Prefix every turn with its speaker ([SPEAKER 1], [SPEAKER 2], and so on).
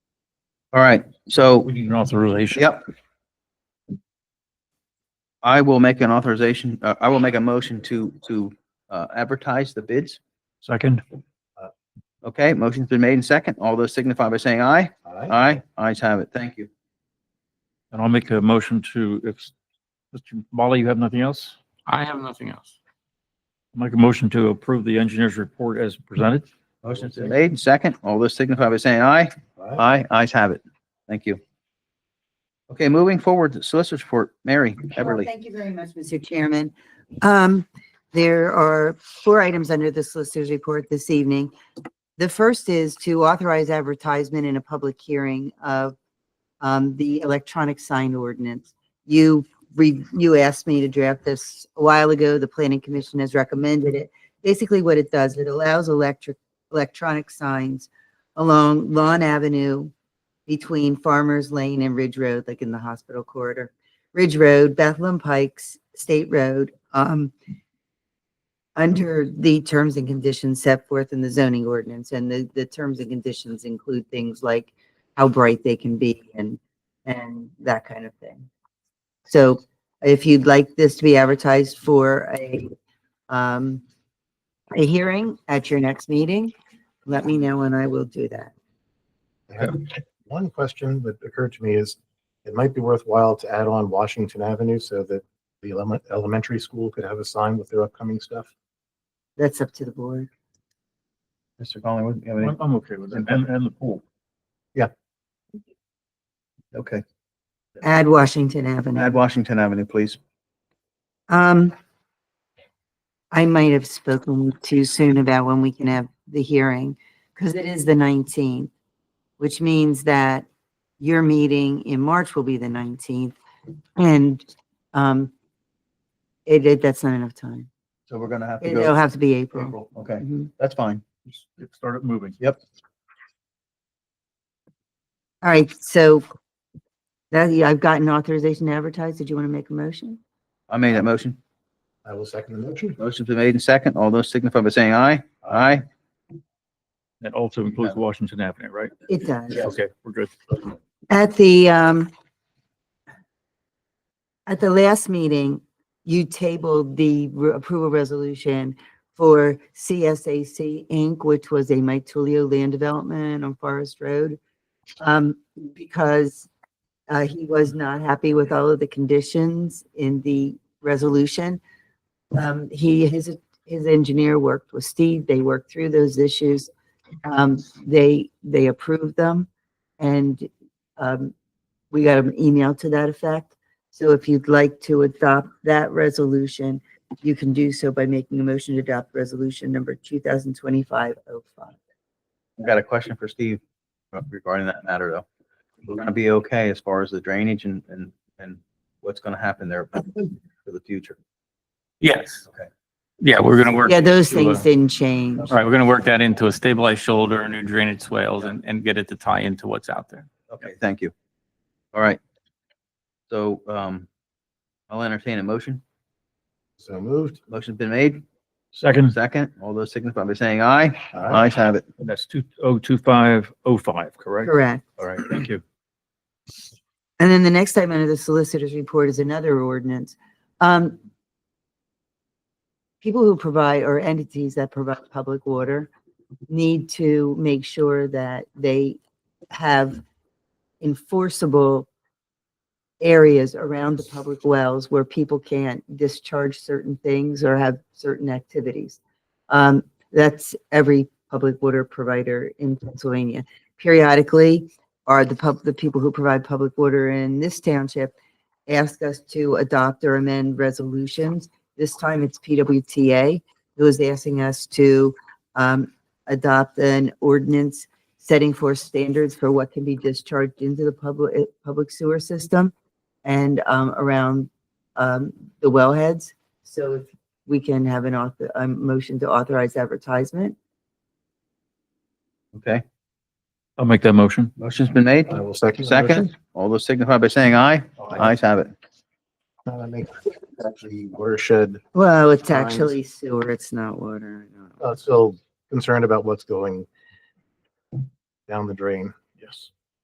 [SPEAKER 1] All right, so,
[SPEAKER 2] We need an authorization.
[SPEAKER 1] yep. I will make an authorization, uh, I will make a motion to, to, uh, advertise the bids.
[SPEAKER 2] Second,
[SPEAKER 1] Okay, motion's been made and second. All those signify by saying aye.
[SPEAKER 3] Uh,
[SPEAKER 1] Aye, ayes have it. Thank you.
[SPEAKER 2] and I'll make a motion to, if, Mr. Bali, you have nothing else?
[SPEAKER 4] I have nothing else.
[SPEAKER 2] Make a motion to approve the engineer's report as presented.
[SPEAKER 1] Motion's been made and second. All those signify by saying aye.
[SPEAKER 3] Uh,
[SPEAKER 1] Aye, ayes have it. Thank you. Okay, moving forward, solicitor's report, Mary
[SPEAKER 5] Well,
[SPEAKER 1] Everly.
[SPEAKER 5] Thank you very much, Mr. Chairman. Um, there are four items under the solicitor's report this evening. The first is to authorize advertisement in a public hearing of um, the electronic sign ordinance. You re, you asked me to draft this a while ago. The planning commission has recommended it. Basically what it does, it allows electric, electronic signs along Lawn Avenue between Farmers Lane and Ridge Road, like in the hospital corridor. Ridge Road, Bethlehem Pikes, State Road, um, under the terms and conditions set forth in the zoning ordinance, and the, the terms and conditions include things like how bright they can be and, and that kind of thing. So if you'd like this to be advertised for a, um, a hearing at your next meeting, let me know and I will do that.
[SPEAKER 3] I have One question that occurred to me is it might be worthwhile to add on Washington Avenue so that the elemen- elementary school could have a sign with their upcoming stuff.
[SPEAKER 5] That's up to the board.
[SPEAKER 1] Mr. Collingwood, you have
[SPEAKER 2] I'm, I'm okay with it. And, and the pool.
[SPEAKER 1] Okay.
[SPEAKER 5] Add Washington Avenue.
[SPEAKER 1] Add Washington Avenue, please.
[SPEAKER 5] Um, I might have spoken too soon about when we can have the hearing, because it is the nineteenth, which means that your meeting in March will be the nineteenth, and, um, it, it, that's not enough time.
[SPEAKER 1] So we're gonna have to
[SPEAKER 5] It'll
[SPEAKER 1] go.
[SPEAKER 5] have to be April.
[SPEAKER 1] April, Okay,
[SPEAKER 5] Mhm.
[SPEAKER 1] that's fine.
[SPEAKER 2] Just Start it moving.
[SPEAKER 1] Yep.
[SPEAKER 5] All right, so that, yeah, I've gotten authorization to advertise. Did you want to make a motion?
[SPEAKER 1] I made that motion.
[SPEAKER 3] I will second the motion.
[SPEAKER 1] Motion's been made and second. All those signify by saying aye. Aye.
[SPEAKER 2] That also includes Washington Avenue, right?
[SPEAKER 5] It does.
[SPEAKER 2] Okay, we're good.
[SPEAKER 5] At the, um, at the last meeting, you tabled the re- approval resolution for CSAC Inc., which was a Mike Tullio land development on Forest Road. Um, because, uh, he was not happy with all of the conditions in the resolution. Um, he, his, his engineer worked with Steve. They worked through those issues. Um, they, they approved them. And um, we got an email to that effect. So if you'd like to adopt that resolution, you can do so by making a motion to adopt resolution number two thousand twenty-five oh five.
[SPEAKER 1] I've got a question for Steve regarding that matter, though. We're gonna be okay as far as the drainage and, and, and what's gonna happen there for the future.
[SPEAKER 4] Yes.
[SPEAKER 1] Okay.
[SPEAKER 4] Yeah, we're gonna work.
[SPEAKER 5] Yeah, those
[SPEAKER 4] to, uh,
[SPEAKER 5] things didn't change.
[SPEAKER 4] All right, we're gonna work that into a stabilized shoulder, new drainage swales and, and get it to tie into what's out there.
[SPEAKER 1] Okay, thank you. All right. So, um, I'll entertain a motion.
[SPEAKER 3] So moved.
[SPEAKER 1] Motion's been made.
[SPEAKER 2] Second,
[SPEAKER 1] Second, all those signify by saying aye.
[SPEAKER 3] Aye.
[SPEAKER 1] Ayes have it.
[SPEAKER 2] that's two oh two five oh five, correct?
[SPEAKER 5] Correct.
[SPEAKER 2] All right, thank you.
[SPEAKER 5] And then the next item under the solicitor's report is another ordinance. Um, people who provide, or entities that provide public water need to make sure that they have enforceable areas around the public wells where people can't discharge certain things or have certain activities. Um, that's every public water provider in Pennsylvania. Periodically, are the pub, the people who provide public water in this township ask us to adopt or amend resolutions. This time it's PWTA who is asking us to um, adopt an ordinance setting forth standards for what can be discharged into the public, eh, public sewer system and um, around um, the wellheads. So if we can have an author, a motion to authorize advertisement.
[SPEAKER 1] Okay,
[SPEAKER 2] I'll make that motion.
[SPEAKER 1] motion's been made.
[SPEAKER 3] I will second. the
[SPEAKER 1] Second, all those signify by saying aye.
[SPEAKER 3] motion.
[SPEAKER 1] Ayes have it.
[SPEAKER 3] Uh, I make- Actually, watershed,
[SPEAKER 5] Well, it's
[SPEAKER 3] Times.
[SPEAKER 5] actually sewer, it's not water. I don't know.
[SPEAKER 3] uh, still concerned about what's going down the drain.